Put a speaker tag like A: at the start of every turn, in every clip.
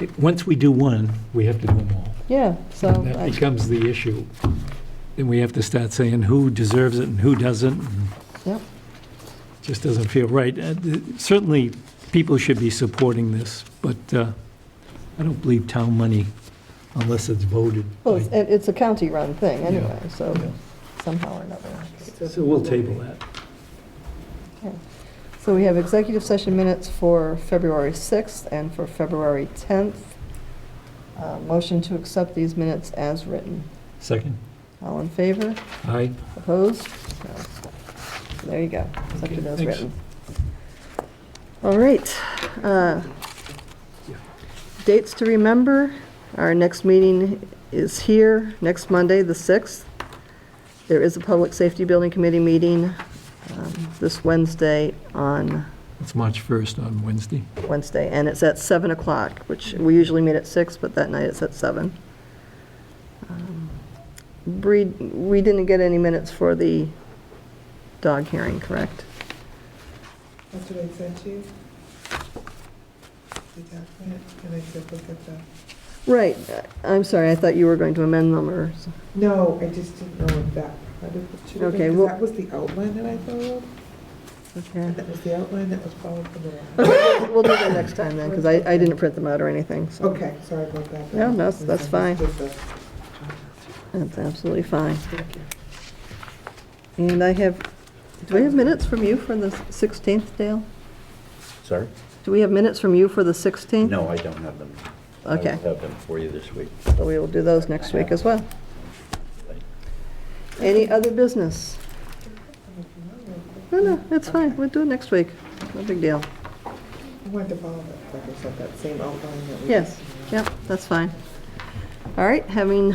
A: it- once we do one, we have to do them all.
B: Yeah, so,
A: And
B: I-
A: That becomes the issue. Then we have to start saying who deserves it and who doesn't. and
B: Yep.
A: it Just doesn't feel right. Uh, th- Certainly, people should be supporting this, but uh, I don't believe town money unless it's voted.
B: well, it's-
A: by-
B: it- it's a county-run thing
A: Yeah,
B: anyway, so
A: yeah.
B: somehow or another.
A: So we'll table that.
B: So we have executive session minutes for February 6th and for February 10th. Uh, Motion to accept these minutes as written.
A: Second?
B: All in favor?
A: Aye.
B: Opposed? No. There you go, accepted as
A: Okay, thanks.
B: written. All right. uh,
A: Yeah.
B: Dates to remember, our next meeting is here, next Monday, the 6th. There is a Public Safety Building Committee meeting um, this Wednesday on
A: It's March 1st on Wednesday.
B: Wednesday, and it's at 7 o'clock, which we usually meet at 6, but that night it's at 7. Um, Bree, we didn't get any minutes for the dog hearing, correct?
C: That's what I sent you. The document, and I said, look at the,
B: Right, I'm sorry, I thought you were going to amend them or, s-
C: no, I just didn't know if that part of it should have
B: Okay,
C: been,
B: well-
C: 'cause that was the outline that I followed.
B: okay.
C: And that was the outline that was followed from the last.
B: Okay, We'll do that next time then, because I, I didn't print them out or anything, so.
C: Okay, sorry about that.
B: No, that's- that's fine.
C: Just the-
B: That's absolutely fine.
C: Thank you.
B: And I have, do we have minutes from you for the 16th, Dale?
D: Sorry?
B: Do we have minutes from you for the 16th?
D: No, I don't have them.
B: Hmm? Okay.
D: I will have them for you this week.
B: So we will do those next week as well. Any other business? No, no, it's fine, we'll do it next week, no big deal.
C: I wanted to follow that, like I said, that same outline that we.
B: Yes, yep, that's fine. All right, having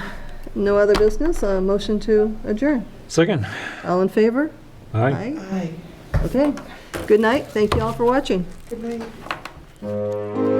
B: no other business, a motion to adjourn.
A: Second?
B: All in favor?
A: Aye.
C: Aye.
B: Okay, good night, thank you all for watching.
C: Good night.